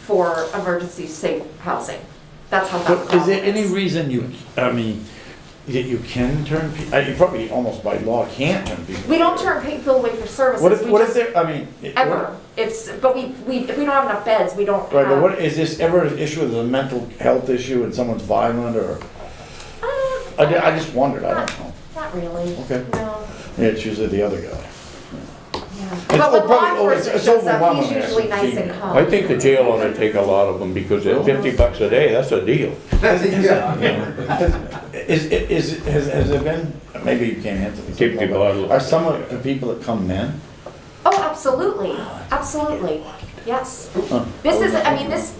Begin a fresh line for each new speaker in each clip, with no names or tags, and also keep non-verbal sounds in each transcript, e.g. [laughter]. for emergency safe housing. That's how that
But is there
problem
any
is.
reason you, I mean, that you can turn, pe- uh, you probably almost by law can't turn people?
We don't
away.
turn people away for services.
What if,
We
what if
just-
there, I mean. it- what-
Ever. It's, but we, we, if we don't have enough beds, we don't
Right, but
have.
what, is this ever an issue with a mental health issue and someone's violent or,
Uh,
I, ju- I just wondered, I don't know.
Not really.
Okay.
No,
Yeah, it's usually the other guy.
yeah. But
oh,
when law
probably- oh, it's-
enforcement
it's
shows up, he's
overwhelming as a
usually nice and
female.
calm.
I think the jail ought to take a lot of them, because at fifty bucks a day, that's a deal.
Is, is, is- has, has there been, maybe you can't answer this.
Keep the bottle.
Are some of the people that come men?
Oh, absolutely, absolutely, yes. This is, I mean, this,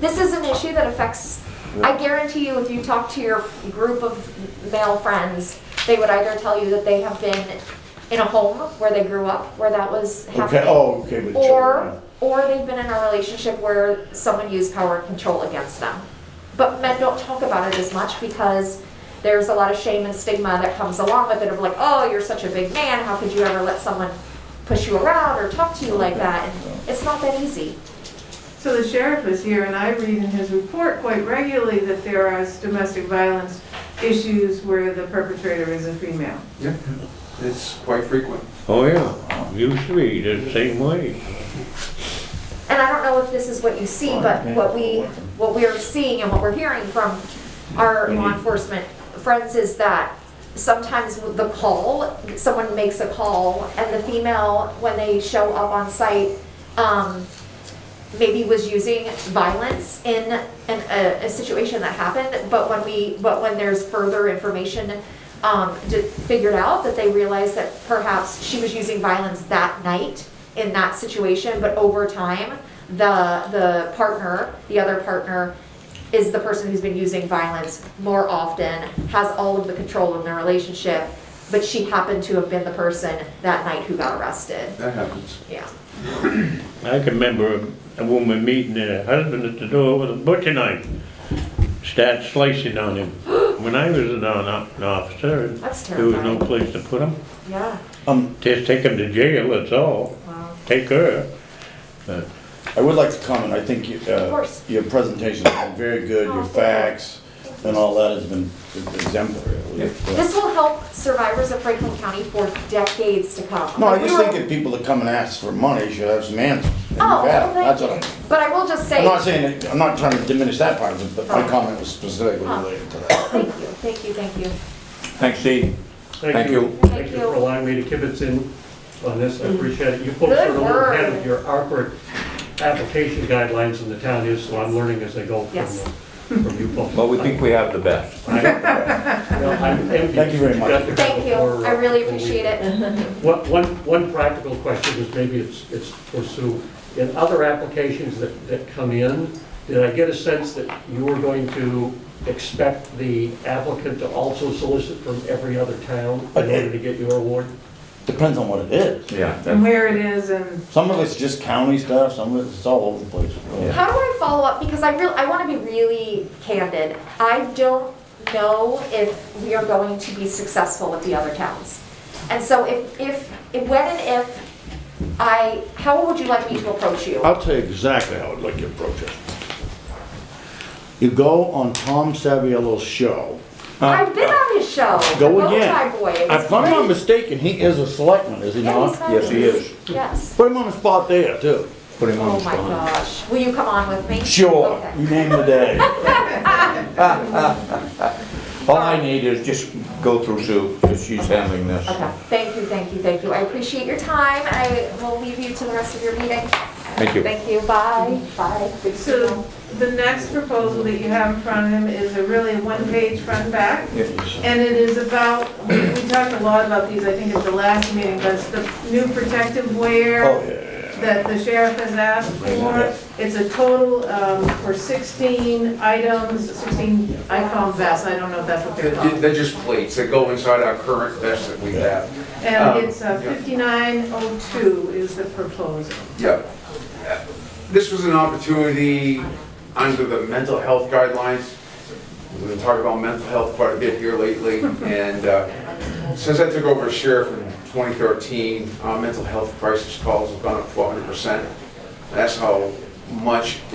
this is an issue that affects, I guarantee you, if you talk to your group of male friends, they would either tell you that they have been in a home where they grew up, where that was
Okay,
happening.
oh, okay, with children.
Or, or they've been in a relationship where someone used power and control against them. But men don't talk about it as much because there's a lot of shame and stigma that comes along with it of like, oh, you're such a big man, how could you ever let someone push you around or talk to you like that? And It's not that easy.
So the sheriff was here, and I read in his report quite regularly that there are domestic violence issues where the perpetrator is a female.
Yeah, it's quite frequent.
Oh, yeah, used to be the same way.
And I don't know if this is what you see, but what we, what we're seeing and what we're hearing from our law enforcement friends is that sometimes with the call, someone makes a call and the female, when they show up on site, um, maybe was using violence in an, a, a situation that happened, but when we, but when there's further information, um, d- figured out that they realized that perhaps she was using violence that night in that situation, but over time, the, the partner, the other partner is the person who's been using violence more often, has all of the control in the relationship, but she happened to have been the person that night who got arrested.
That happens.
Yeah.
I can remember a- a woman meeting her husband at the door with a butcher knife, started slicing
[gasps]
on him. When I was an on- an officer,
That's
there was no
terrifying.
place to put him,
Yeah.
Um,
just take him to jail, that's all,
Wow.
take her.
I would like to comment, I think you,
Of
uh,
course.
your presentation's been very good,
Oh,
your
thank you.
facts and all that has been exemplary. I believe. Yeah.
This will help survivors of Franklin County for decades to come.
No, I
Like, we
just
were-
think that people that come and ask for money should have some answers. and
Oh,
you've had
well,
them.
thank
That's
you.
what I'm-
But I will just
I'm
say,
not saying, that- I'm not trying to diminish that part of it, but my
Oh.
comment was specifically
Oh.
related to that.
thank you, thank you, thank you.
Thanks, Steve. Thank
Thank you.
you. Mm-hmm.
Thank you for allowing me to kibitz in on this, I appreciate it. You folks
Good
are a little ahead
word.
of your awkward application guidelines in the town is, so I'm learning as I go from,
Yes.
the- from you folks.
But we think we have the best.
I- no,
[laughs]
I'm envious
Thank you very
that
much.
got to go
Thank you,
before,
I
uh,
really
before we-
appreciate it.
One, one- one practical question is maybe it's, it's for Sue. In other applications that, that come in, did I get a sense that you were going to expect the applicant to also solicit from every other town in order to get your award?
Depends on what it is.
Yeah.
And where it is, and
Some of it's just county stuff, some of it's all over the place.
How do I follow up? Because I real, I want to be really candid. I don't know if we are going to be successful with the other towns. And so if, if, if- when and if I, how would you like me to approach you?
I'll tell you exactly how I'd like to approach it. You go on Tom Saviello's show.
I've been on his show, the
Go
Bowtie
again.
Boy. It's
If I'm not
great.
mistaken, he is a selectman, is he
Yeah, he's
not?
fabulous. Yes.
Put him on the spot there, too.
Put him
Oh my gosh. Will you come on with me?
Sure,
Okay.
you name the day.
[laughs]
All I need is just go through Sue, because she's handling this.
Okay, thank you, thank you, thank you. I appreciate your time. I will leave you to the rest of your meeting.
Thank you.
Thank you, bye, bye. Good to see you.
so the next proposal that you have in front of him is a really one-page front and back. And it is about, we we talked a lot about these, I think, at the last meeting, but it's the new protective wear.
Oh, yeah.
that the sheriff has asked for. It's a total um, for 16 items, 16, I call them vests, I don't know if that's what they're called.
They're just plates that go inside our current vest that we have.
And it's uh,
Um, yeah.
5902 is the proposal.
Yeah. This was an opportunity under the mental health guidelines. We've been talking about mental health quite a bit here lately, and uh, since I took over as sheriff in 2013, our mental health crisis calls have gone up 400%. That's how much